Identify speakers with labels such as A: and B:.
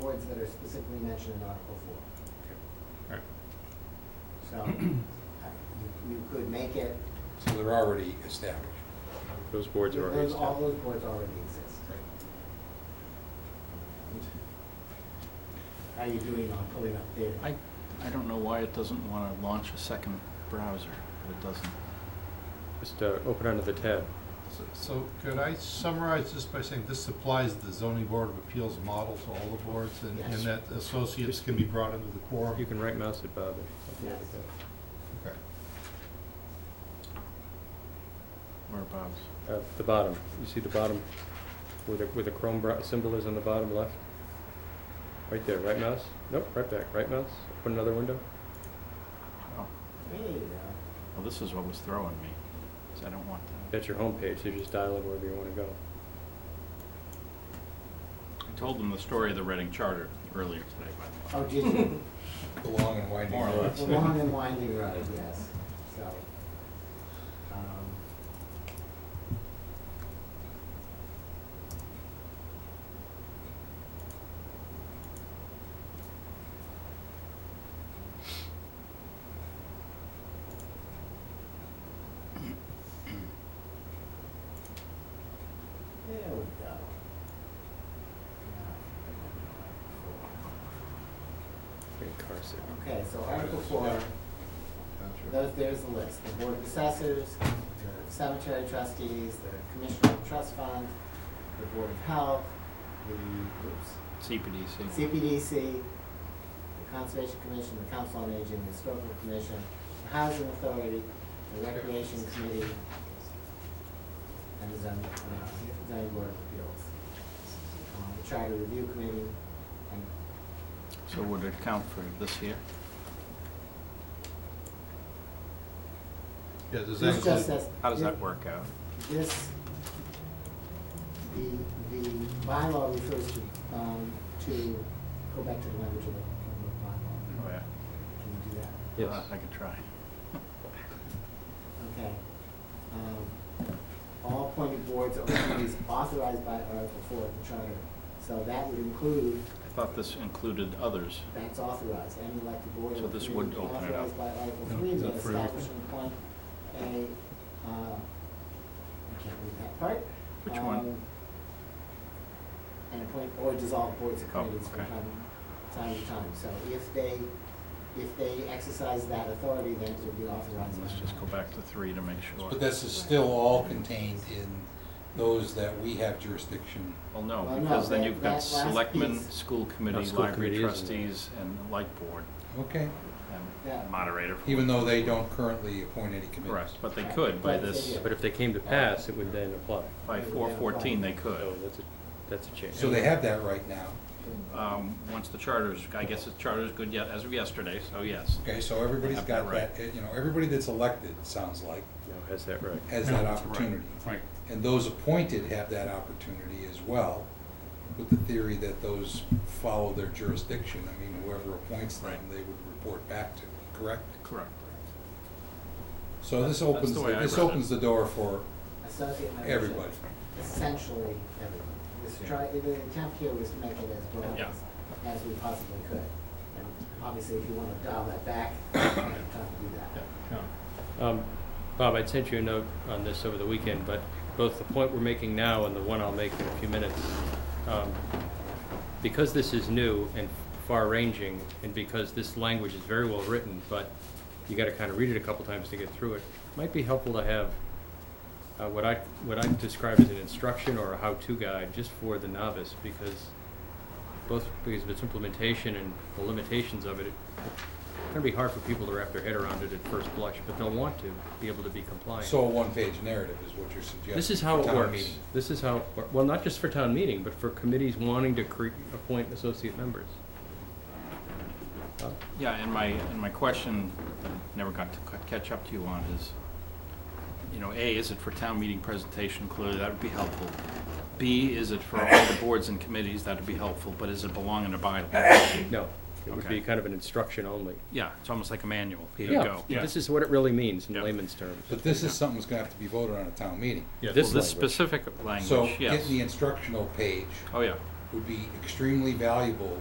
A: words that are specifically mentioned in Article Four.
B: Alright,
A: So, uh, you- you could make it,
C: So they're already established.
B: Those boards are already
A: those- all
B: established.
A: those boards already exist. How are you doing on pulling up data?
D: I, I don't know why it doesn't want to launch a second browser, but it doesn't.
B: Just uh, open under the tab.
E: So- So could I summarize this by saying this applies the zoning board of appeals model to all the boards and, and
A: Yes.
E: that associates can be brought into the quorum?
B: You can right mouse it, Bob. and open under
A: Yes.
B: the
E: Okay.
D: Or Bob's.
B: tab. Uh, The bottom, you see the bottom where the, where the Chrome bro- symbol is on the bottom left? Right there, right mouse? Nope, right back, right mouse. Open another window.
D: Wow.
A: There you go.
D: Well, oh, this is what was throwing me, 'cause I don't want that.
B: That's your home page. so you just dial in wherever you want to go.
D: I told them the story of the Reading Charter earlier today, by the
A: Oh,
D: way.
A: did you?
C: The long and winding
D: More or
C: road.
D: less.
A: It's a long and winding road, yes, so. um, There we go.
B: Great car signal.
A: Okay, so Article four. Those, there's the list, the Board of Assessors, the Cemetery Trustees, the Commissioner of Trust Fund, the Board of Health, the, oops,
D: CPDC.
A: CPDC, the Conservation Commission, the Council on Aging, the Historical Commission, the Housing Authority, the Recreation Committee, and the Zoning, uh, Zoning Board of Appeals. Um, the Charter Review Committee, and
D: So would it count for this here?
E: Yeah, does that
A: this just
E: include,
A: says.
D: How does
A: this-
D: that work out?
A: This, the, the bylaw refers to, um, to, go back to the language of the, of the bylaw.
D: Oh, yeah.
A: Can you do that?
B: Yes.
D: Uh, I could try.
A: Okay. Um, All appointed boards or committees authorized by Article Four of the Charter. So that would include,
D: I thought this included others.
A: that's authorized, any elected board
D: So
A: or
D: this
A: committee
D: would open it up.
A: authorized by Article
E: No,
A: Three
E: is
A: may
E: that for
A: establish and appoint a, uh, I can't read that part.
D: Which one?
A: Um, and appoint or dissolve boards or
D: Oh,
A: committees from
D: okay.
A: time, time to time. So if they, if they exercise that authority, then it would be authorized.
D: Let's
A: by
D: just go
A: law.
D: back to three to make sure.
C: But this is still all contained in those that we have jurisdiction.
D: Well, no,
A: Well, no,
D: because then
A: that-
D: you've
A: that
D: got
A: last
D: selectmen,
A: piece.
D: school
B: No,
D: committee,
B: school
D: library
B: committee isn't there.
D: trustees, and light board,
C: Okay.
A: Yeah.
D: and moderator.
C: Even though they don't currently appoint any committees.
D: Correct, but they could by
A: Right, they
D: this,
A: do.
B: But if they came to pass, it would then apply.
D: by four fourteen, they could.
B: So that's a, that's a change.
C: So they have that right now.
D: Um, once the charter's, I guess the charter's good yet, as of yesterday, so yes.
C: Okay, so everybody's
D: Have that
C: got
D: right.
C: that, you know, everybody that's elected, it sounds like,
B: No, has that right.
C: has that opportunity.
D: Right.
C: And those appointed have that opportunity as well, with the theory that those follow their jurisdiction. I mean, whoever appoints them,
D: Right.
C: they would report back to, correct?
D: Correct.
C: So this opens,
D: the way I
C: this
D: read it.
C: opens the door for
A: Associate membership.
C: everybody.
A: Essentially everyone. This
B: Yeah.
A: try, the attempt here was to make it as broad
D: Yeah.
A: as, as we possibly could. And obviously, if you want to dial that back, you have time to do that.
B: Um, Bob, I'd sent you a note on this over the weekend, but both the point we're making now and the one I'll make in a few minutes, um, because this is new and far-ranging, and because this language is very well written, but you gotta kind of read it a couple times to get through it, might be helpful to have uh, what I, what I describe as an instruction or a how-to guide, just for the novice, because both because of its implementation and the limitations of it, it's gonna be hard for people to wrap their head around it at first blush, but they'll want to be able to be compliant.
C: So a one-page narrative is what you're suggesting.
B: This is how
C: for
B: it
C: town
B: works.
C: meeting.
B: This is how, well, not just for town meeting, but for committees wanting to cre- appoint associate members. Uh,
D: Yeah, and my, and my question, that I never got to c- catch up to you on is, you know, A, is it for town meeting presentation? Clearly, that would be helpful. B, is it for all the boards and committees? That would be helpful, but is it belong in a bylaw?
B: No, it would be
D: Okay.
B: kind of an instruction only.
D: Yeah, it's almost like a manual. Here you
B: Yeah,
D: go.
B: this is what it really means in
D: Yeah.
B: layman's terms.
C: But this is something that's gonna have to be voted on at town meeting.
D: Well, this
B: language.
D: specific
C: So
D: language, yes.
C: getting the instructional page
D: Oh, yeah.
C: would be extremely valuable